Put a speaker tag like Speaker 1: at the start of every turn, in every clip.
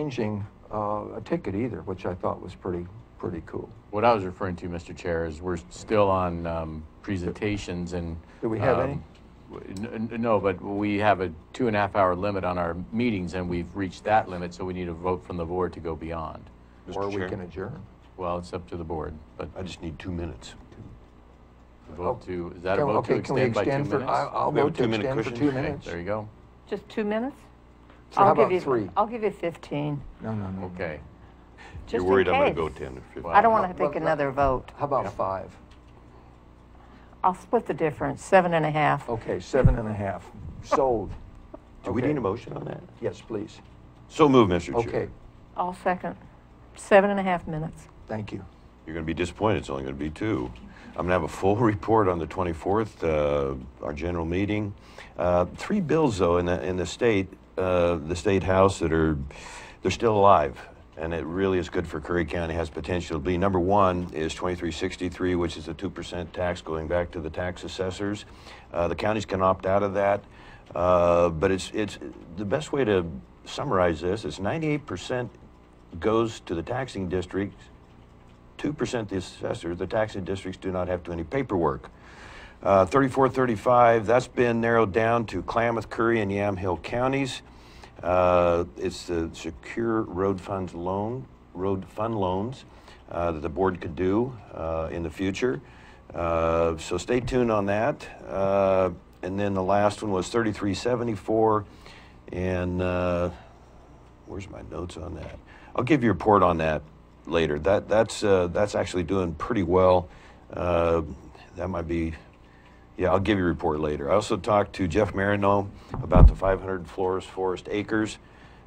Speaker 1: changing uh, a ticket either, which I thought was pretty, pretty cool.
Speaker 2: What I was referring to, Mr. Chair, is we're still on um, presentations and.
Speaker 1: Do we have
Speaker 2: um,
Speaker 1: any?
Speaker 2: w- n- n- No, but we have a two and a half hour limit on our meetings, and we've reached that limit, so we need a vote from the board to go beyond.
Speaker 3: Mr.
Speaker 1: Or we
Speaker 3: Chair?
Speaker 1: can adjourn.
Speaker 2: Well, it's up to the board, but
Speaker 3: I just need two minutes.
Speaker 2: vote to, is that a
Speaker 1: Can-
Speaker 2: vote to
Speaker 1: Okay, can we
Speaker 2: extend by two minutes?
Speaker 1: for? I- I'll
Speaker 3: We have a
Speaker 1: vote to
Speaker 3: two-minute
Speaker 1: extend for
Speaker 3: cushion?
Speaker 1: two
Speaker 3: Okay,
Speaker 1: minutes.
Speaker 2: There you go.
Speaker 4: Just two minutes?
Speaker 1: So how
Speaker 4: I'll give
Speaker 1: about
Speaker 4: you-
Speaker 1: three?
Speaker 4: I'll give you 15,
Speaker 1: No, no, no.
Speaker 2: Okay.
Speaker 4: just
Speaker 3: You're
Speaker 4: in
Speaker 3: worried I'm going to go
Speaker 4: case.
Speaker 3: 10 or 15.
Speaker 4: I don't want to
Speaker 1: Well,
Speaker 4: take another vote.
Speaker 1: How about five?
Speaker 4: I'll split the difference, seven and a half.
Speaker 1: Okay, seven and a half. Sold.
Speaker 3: Do we
Speaker 1: okay.
Speaker 3: need a motion on that?
Speaker 1: Yes, please.
Speaker 3: So move, Mr. Chair.
Speaker 1: Okay,
Speaker 4: I'll second. Seven and a half minutes.
Speaker 1: thank you.
Speaker 3: You're going to be disappointed. It's only going to be two. I'm going to have a full report on the 24th, uh, our general meeting. Uh, three bills, though, in the, in the state, uh, the state house that are, they're still alive. And it really is good for Curry County, has potential to be. Number one is 2363, which is a 2% tax going back to the tax assessors. Uh, the counties can opt out of that. Uh, but it's, it's the best way to summarize this is 98% goes to the taxing districts 2% the assessor, the taxing districts do not have to do any paperwork. Uh, 3435, that's been narrowed down to Klamath, Curry, and Yamhill counties. Uh, it's the secure road funds loan, road fund loans uh, that the board could do uh, in the future. Uh, so stay tuned on that. Uh, and then the last one was 3374, and uh, Where's my notes on that? I'll give you a report on that later. That that's uh, that's actually doing pretty well. Uh, that might be, yeah. I'll give you a report later. I also talked to Jeff Marino about the 500 florist forest acres,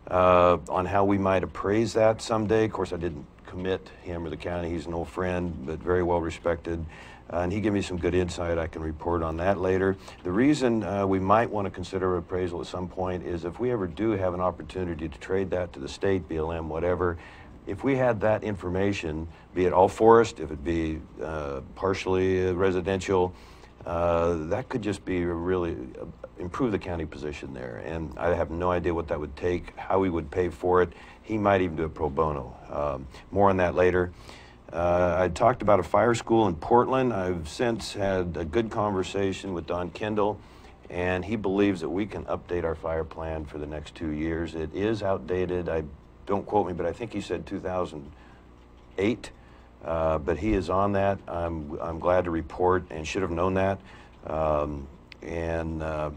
Speaker 3: uh, on how we might appraise that someday. Of course, I didn't commit him or the county. He's an old friend, but very well respected. Uh, and he gave me some good insight. I can report on that later. The reason uh, we might want to consider appraisal at some point is if we ever do have an opportunity to trade that to the state, BLM, whatever, if we had that information, be it all forest, if it be uh, partially residential, uh, that could just be a really uh, improve the county position there. And I have no idea what that would take, how we would pay for it. He might even do it pro bono. Um, more on that later. Uh, I talked about a fire school in Portland. I've since had a good conversation with Don Kendall, and he believes that we can update our fire plan for the next two years. It is outdated. I don't quote me, but I think he said 2000 eight, uh, but he is on that. I'm, I'm glad to report and should have known that. Um, and uh,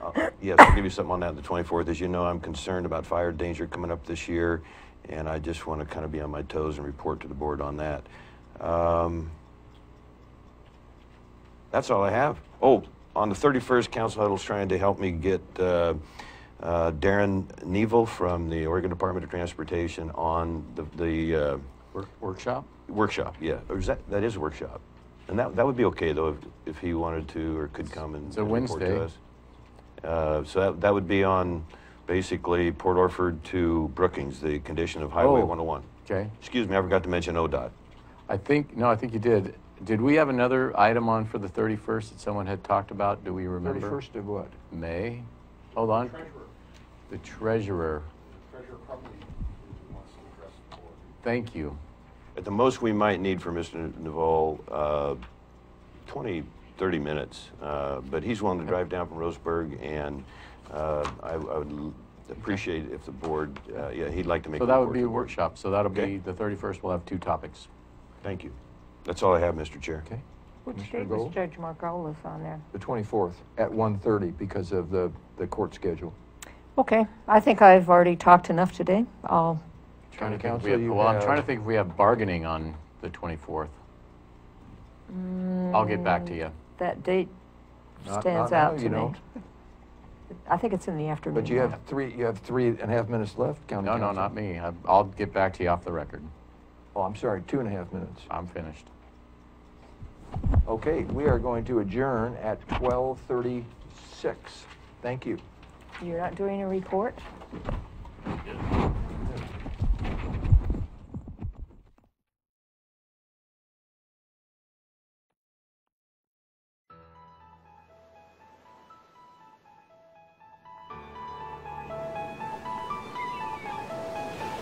Speaker 3: I'll- yes, I'll give you something on that on the 24th. As you know, I'm concerned about fire danger coming up this year, and I just want to kind of be on my toes and report to the board on that. Um, that's all I have. Oh, on the 31st, Council Huddle's trying to help me get uh, uh, Darren Neville from the Oregon Department of Transportation on the, the uh,
Speaker 2: Work- Workshop?
Speaker 3: Workshop, yeah. Or is that, that is a workshop. And that, that would be okay, though, if, if he wanted to or could come and
Speaker 2: It's a
Speaker 3: and report to
Speaker 2: Wednesday.
Speaker 3: us. Uh, So that, that would be on basically Port Orford to Brookings, the condition of Highway
Speaker 2: Oh.
Speaker 3: 101.
Speaker 2: Okay.
Speaker 3: Excuse me, I forgot to mention ODOT.
Speaker 2: I think, no, I think you did. Did we have another item on for the 31st that someone had talked about? Do we remember?
Speaker 1: Thirty-first of what?
Speaker 2: May? Hold on. The treasurer. Thank you.
Speaker 3: At the most, we might need for Mr. Naval, uh, 20, 30 minutes, uh, but he's willing to drive down from Roseburg, and uh, I, I would l- appreciate if the board, uh, yeah, he'd like to make.
Speaker 2: So that
Speaker 3: report
Speaker 2: would be
Speaker 3: to
Speaker 2: a
Speaker 3: the board.
Speaker 2: workshop. So that'll
Speaker 3: Okay.
Speaker 2: be, the 31st, we'll have two topics.
Speaker 3: Thank you. That's all I have, Mr. Chair.
Speaker 1: Okay,
Speaker 4: Which
Speaker 1: Commissioner
Speaker 4: date was
Speaker 1: Gold?
Speaker 4: Judge Margolis on there?
Speaker 1: the twenty-fourth at 1:30 because of the, the court schedule.
Speaker 4: Okay, I think I've already talked enough today. I'll,
Speaker 2: Trying to
Speaker 1: County
Speaker 2: think if
Speaker 1: Council,
Speaker 2: we have-
Speaker 1: you
Speaker 2: Well, I'm
Speaker 1: have-
Speaker 2: trying to think if we have bargaining on the 24th. I'll get back to you.
Speaker 4: that date
Speaker 1: Not-
Speaker 4: stands
Speaker 1: not now,
Speaker 4: out
Speaker 1: you
Speaker 4: to
Speaker 1: know.
Speaker 4: me. I think it's in the afternoon.
Speaker 1: But you have three, you have three and a half minutes left,
Speaker 3: Mm.
Speaker 1: county
Speaker 2: Mm-hmm. No, no,
Speaker 1: council.
Speaker 2: not me. I- I'll get back to you off the record.
Speaker 1: Oh, I'm sorry, two and a half minutes.
Speaker 2: I'm finished.
Speaker 1: Okay, we are going to adjourn at 12:36. Thank you.
Speaker 4: You're not doing a report?